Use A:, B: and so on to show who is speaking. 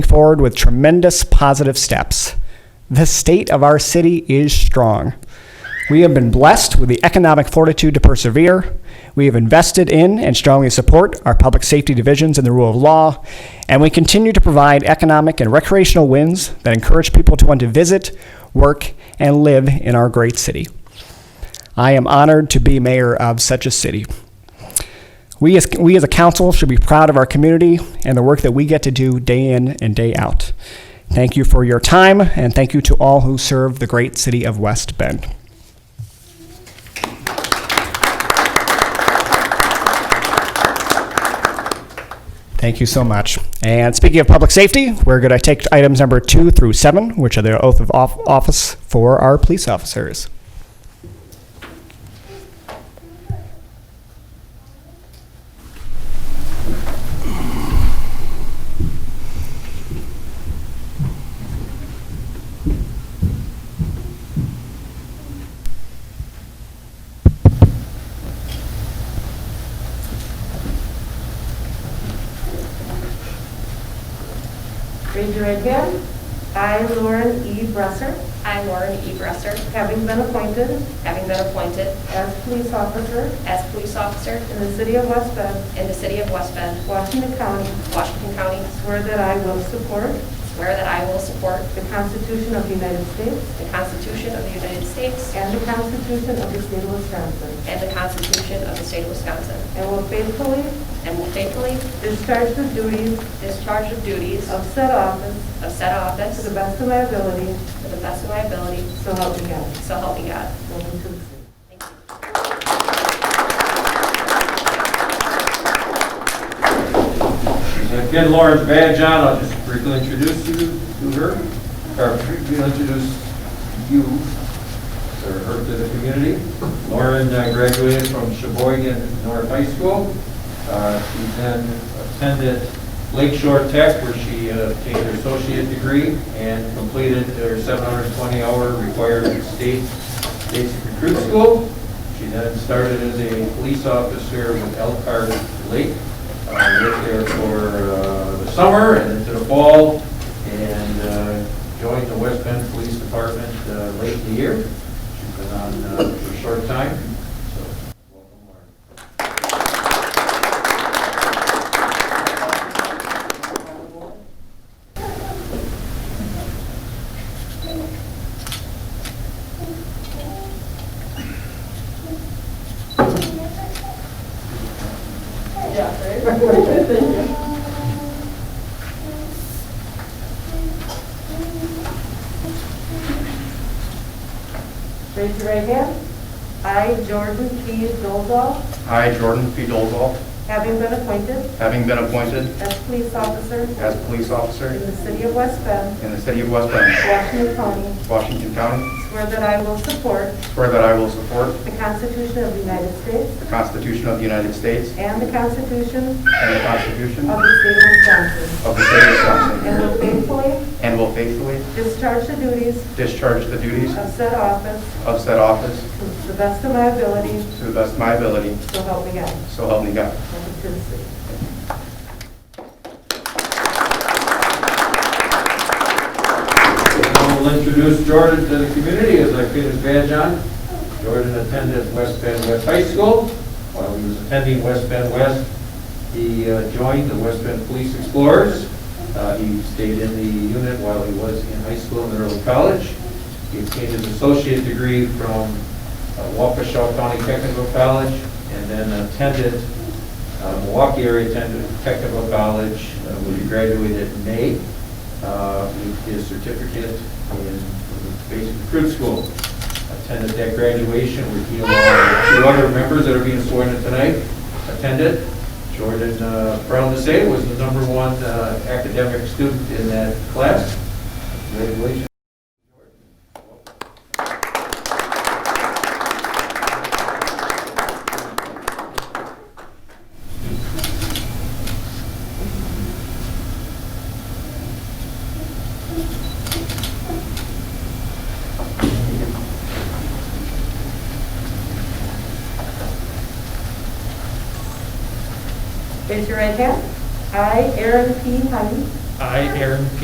A: forward with tremendous positive steps. The state of our city is strong. We have been blessed with the economic fortitude to persevere. We have invested in and strongly support our public safety divisions and the rule of law, and we continue to provide economic and recreational wins that encourage people to want to visit, work, and live in our great city. I am honored to be mayor of such a city. We as, we as a council should be proud of our community and the work that we get to do day in and day out. Thank you for your time, and thank you to all who serve the great city of West Bend. Thank you so much. And speaking of public safety, we're going to take items number two through seven, which are the oath of off- office for our police officers.
B: Raise your right hand. I, Lauren E. Bresser,
C: I, Lauren E. Bresser,
B: having been appointed
C: having been appointed
B: as police officer
C: as police officer
B: in the city of West Bend,
C: in the city of West Bend,
B: Washington County,
C: Washington County,
B: swear that I will support
C: swear that I will support
B: the Constitution of the United States
C: the Constitution of the United States
B: and the Constitution of the state of Wisconsin,
C: and the Constitution of the state of Wisconsin,
B: and will faithfully
C: and will faithfully
B: discharge the duties
C: discharge the duties
B: of said office
C: of said
B: to
C: office
B: the best of my ability,
C: to the best of my ability,
B: so help me God.
C: so help me God.
B: Welcome to the city.
C: Thank you.
D: Again, Lauren's badge on, I'll just briefly introduce you to her, or briefly introduce you, or her to the community. Lauren uh, graduated from Sheboygan North High School. Uh, She then attended Lakeshore Tech, where she uh, obtained her associate degree and completed her 720-hour required state basic recruit school. She then started as a police officer with Elkhart Lake uh, lived there for uh, the summer and into the fall, and uh, joined the West Bend Police Department uh, late in the year. She's been on uh, for a short time, so welcome, Lauren.
B: Raise your right hand. I, Jordan P. Dolzall,
E: I, Jordan P. Dolzall,
B: having been appointed
E: having been appointed
B: as police officer
E: as police
B: in
E: officer
B: the city of West Bend,
E: in the city of West Bend,
B: Washington County,
E: Washington County,
B: swear that I will support
E: swear that I will support
B: the Constitution of the United States
E: the Constitution of the United States
B: and the Constitution
E: and the Constitution
B: of
E: of
B: the state of Wisconsin,
E: the state of
B: and
E: Wisconsin,
B: will faithfully
E: and will faithfully
B: discharge the duties
E: discharge the duties
B: of said office
E: of said office
B: to the best of my ability,
E: to the best of my ability,
B: so help me God.
E: so help me God.
B: Welcome to the city.
D: I will introduce Jordan to the community as I put his badge on. Jordan attended West Bend West High School. While he was attending West Bend West, he uh, joined the West Bend Police Explorers. Uh, He stayed in the unit while he was in high school and early college. He obtained his associate degree from uh, Waukesha County Technical College and then attended uh, Milwaukee area attended technical college, uh, where he graduated in May, uh, with his certificate in basic recruit school. Attended that graduation, where he along with two other members that are being sworn in tonight, attended. Jordan, uh, proud to say, was the number one uh, academic student in that class. Congratulations.
B: Raise your right hand. I, Aaron P. Honey,
F: I, Aaron P.